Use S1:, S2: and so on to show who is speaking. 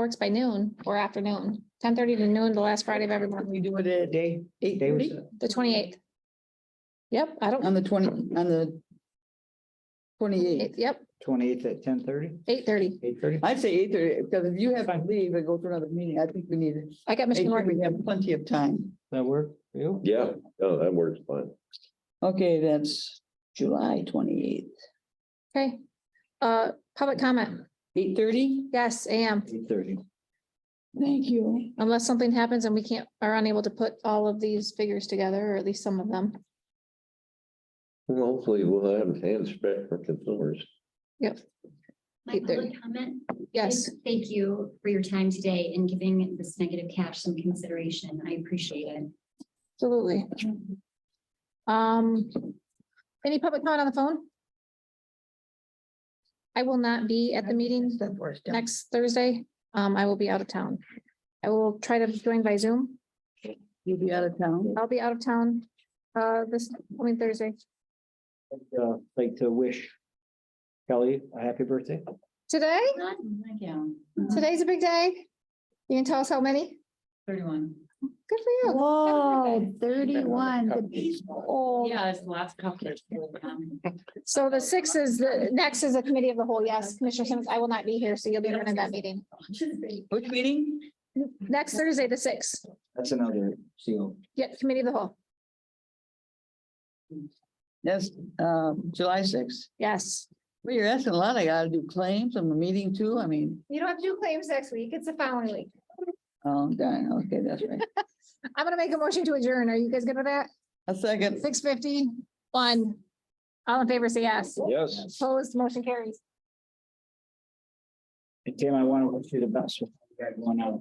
S1: Works by noon or afternoon, ten thirty to noon, the last Friday of every month,
S2: We do it at a day, eight
S3: They were
S2: thirty
S3: set.
S1: the twenty eighth. Yep, I don't,
S2: on the twenty, on the
S1: it-
S2: twenty-eighth.
S1: yep,
S3: Twenty-eighth at ten thirty,
S1: eight thirty.
S3: eight thirty?
S2: I'd say eight thirty, because if you have to leave and go to another meeting, I think we need it.
S1: I got Michigan Work.
S2: We have plenty of time.
S3: That work for you?
S4: Yeah, no, that works fine.
S2: Okay, that's July twenty-eighth,
S1: Okay. Uh, public comment.
S2: eight thirty.
S1: Yes, am.
S3: Eight thirty.
S2: Thank you.
S1: Unless something happens and we can't, are unable to put all of these figures together, or at least some of them.
S4: Well, hopefully we'll have hands spread for consumers.
S5: My
S1: Eight thirty.
S5: public comment?
S1: Yes,
S5: is Thank you for your time today and giving this negative cash some consideration. I appreciate it.
S1: absolutely. Um, any public comment on the phone? I will not be at the meeting next Thursday. Um, I will be out of town. I will try to join by Zoom.
S2: You'll be out of town.
S1: I'll be out of town, uh, this coming Thursday.
S3: Uh, like to wish Kelly a happy birthday.
S1: Today,
S5: Thank you.
S1: today's a big day. You can tell us how many?
S5: Thirty-one.
S1: Good for you.
S6: Whoa, thirty-one, the beach old.
S5: Yeah, it's the last couple. Um,
S1: So the six is, the next is a committee of the whole. Yes, Commissioner Simmons, I will not be here, so you'll be running that meeting.
S2: Which meeting?
S1: Next Thursday, the sixth,
S3: That's another seal.
S1: yeah, committee of the whole.
S2: That's um July sixth.
S1: Yes.
S2: Well, you're asking a lot. I gotta do claims on the meeting too. I mean,
S1: You don't have to do claims next week. It's the following week.
S2: oh, darn, okay, that's right.
S1: I'm gonna make a motion to adjourn. Are you guys good with that?
S2: A second.
S1: Six fifty, one. All in favor, say yes.
S4: Yes.
S1: Opposed, motion carries.
S3: And Tim, I want to wish you the best with that going out.